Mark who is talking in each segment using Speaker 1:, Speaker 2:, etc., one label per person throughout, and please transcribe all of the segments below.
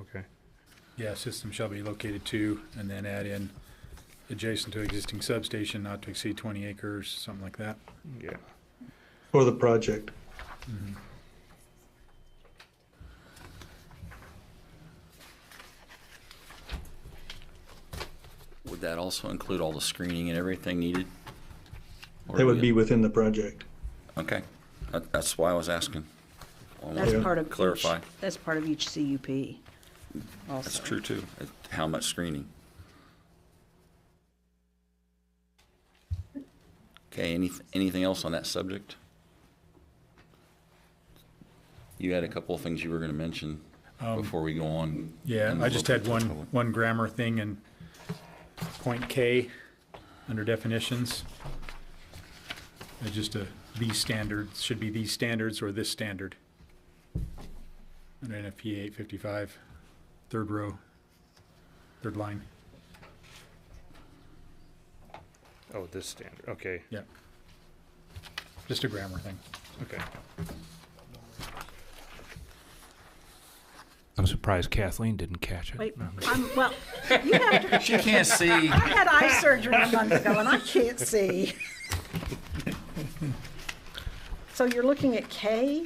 Speaker 1: Okay.
Speaker 2: Yeah, system shall be located to, and then add in adjacent to existing substation, not to exceed twenty acres, something like that.
Speaker 1: Yeah.
Speaker 3: for the project.
Speaker 4: Would that also include all the screening and everything needed? Or
Speaker 3: That
Speaker 4: do
Speaker 3: would
Speaker 4: we-
Speaker 3: be within the project.
Speaker 4: Okay, That- that's why I was asking. I wanted
Speaker 5: That's
Speaker 4: to
Speaker 5: part of. each-
Speaker 4: Clarify,
Speaker 5: That's part of each CUP also.
Speaker 4: that's true too, It- how much screening. Okay, any, anything else on that subject? You had a couple of things you were gonna mention before we go on.
Speaker 2: Um, Yeah,
Speaker 4: And
Speaker 2: I just had
Speaker 4: we'll-
Speaker 2: one, one grammar thing in point K, under definitions. Uh, Just a, these standards, should be these standards or this standard. Under NFPA eight fifty-five, third row, third line,
Speaker 1: Oh, this standard. Okay.
Speaker 2: yeah. Just a grammar thing.
Speaker 1: Okay.
Speaker 6: I'm surprised Kathleen didn't catch it.
Speaker 5: Wait, I'm, well, you have to,
Speaker 4: She can't see.
Speaker 5: I had eye surgery a month ago and I can't see. So you're looking at K?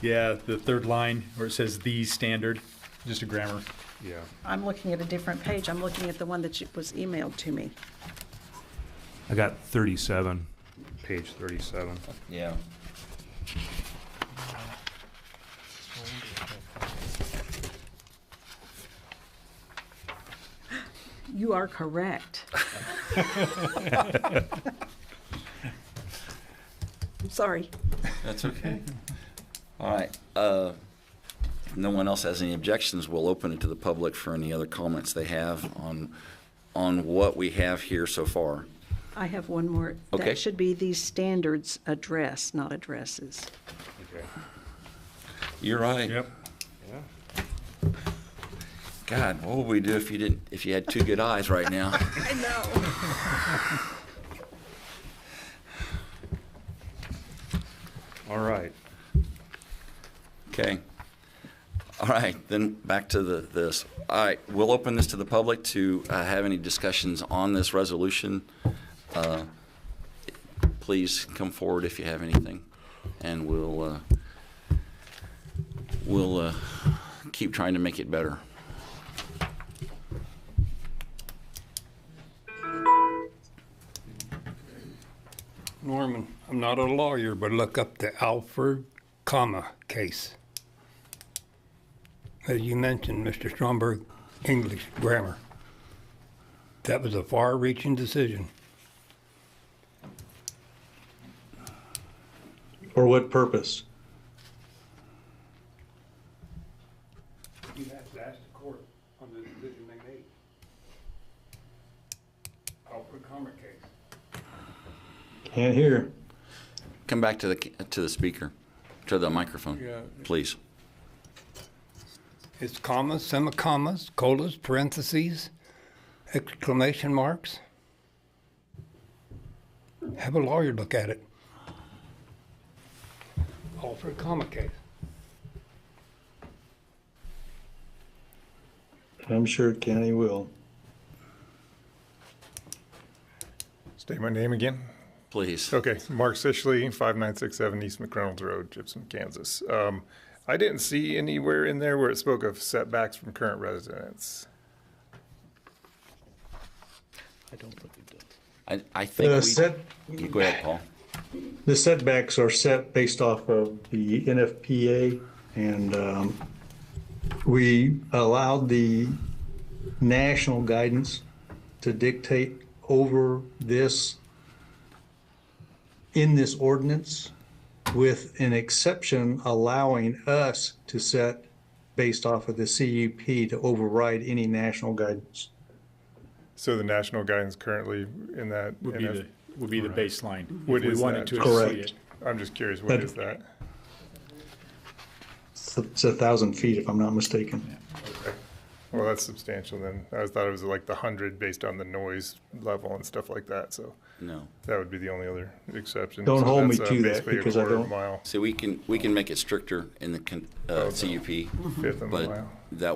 Speaker 2: Yeah, the third line where it says the standard, just a grammar.
Speaker 1: Yeah.
Speaker 5: I'm looking at a different page. I'm looking at the one that you- was emailed to me.
Speaker 6: I got 37.
Speaker 1: Page thirty-seven.
Speaker 4: Yeah.
Speaker 5: You are correct. Sorry.
Speaker 4: That's okay. All right. uh, If no one else has any objections, we'll open it to the public for any other comments they have on, on what we have here so far.
Speaker 5: I have one more.
Speaker 4: Okay.
Speaker 5: That should be these standards address, not addresses.
Speaker 1: Okay.
Speaker 4: You're right.
Speaker 2: Yep.
Speaker 1: Yeah.
Speaker 4: God, what would we do if you didn't, if you had two good eyes right now?
Speaker 5: I know.
Speaker 1: All right.
Speaker 4: Okay. All right, then back to the, this. All right, we'll open this to the public to uh, have any discussions on this resolution. Uh, Please come forward if you have anything, and we'll, uh, we'll uh, keep trying to make it better.
Speaker 7: Norman, I'm not a lawyer, but look up the Alfred, comma, case. As you mentioned, Mr. Stromberg, English grammar. That was a far-reaching decision.
Speaker 3: For what purpose?
Speaker 7: You have to ask the court on the decision they made. Alfred, comma, case.
Speaker 3: Can't hear.
Speaker 4: Come back to the, ca- to the speaker, to the
Speaker 7: Yeah.
Speaker 4: microphone, please.
Speaker 7: It's commas, semicolons, colas, parentheses, exclamation marks. Have a lawyer look at it. All for a comma case.
Speaker 3: I'm sure Kenny will.
Speaker 8: State my name again.
Speaker 4: Please.
Speaker 8: Okay, Mark Sishley, 5967 East McReynolds Road, Gibson, Kansas. Um, I didn't see anywhere in there where it spoke of setbacks from current residents.
Speaker 4: I, I
Speaker 3: The
Speaker 4: think
Speaker 3: set,
Speaker 4: we, go ahead, Paul.
Speaker 3: the setbacks are set based off of the NFPA and, um, we allowed the national guidance to dictate over this in this ordinance with an exception allowing us to set based off of the CUP to override any national guidance.
Speaker 8: So the national guidance currently in that.
Speaker 2: Would be
Speaker 8: NF
Speaker 2: the, would be the baseline.
Speaker 8: What
Speaker 2: If
Speaker 8: is
Speaker 2: We wanted
Speaker 8: that?
Speaker 2: to
Speaker 3: Correct.
Speaker 2: exceed it.
Speaker 8: I'm just curious, what
Speaker 3: But-
Speaker 8: is that?
Speaker 3: It's a- It's a thousand feet, if I'm not mistaken.
Speaker 8: Well, that's substantial then. I thought it was like the 100 based on the noise level and stuff like that, so
Speaker 4: No.
Speaker 8: that would be the only other exception.
Speaker 3: Don't
Speaker 8: So
Speaker 3: hold me
Speaker 8: that's, uh,
Speaker 3: to that,
Speaker 8: basically a
Speaker 3: because I
Speaker 8: quarter
Speaker 3: don't-
Speaker 8: Mile,
Speaker 4: So we can, we can make it stricter in the con- uh, CUP,
Speaker 8: fifth of a
Speaker 4: but
Speaker 8: mile.
Speaker 4: that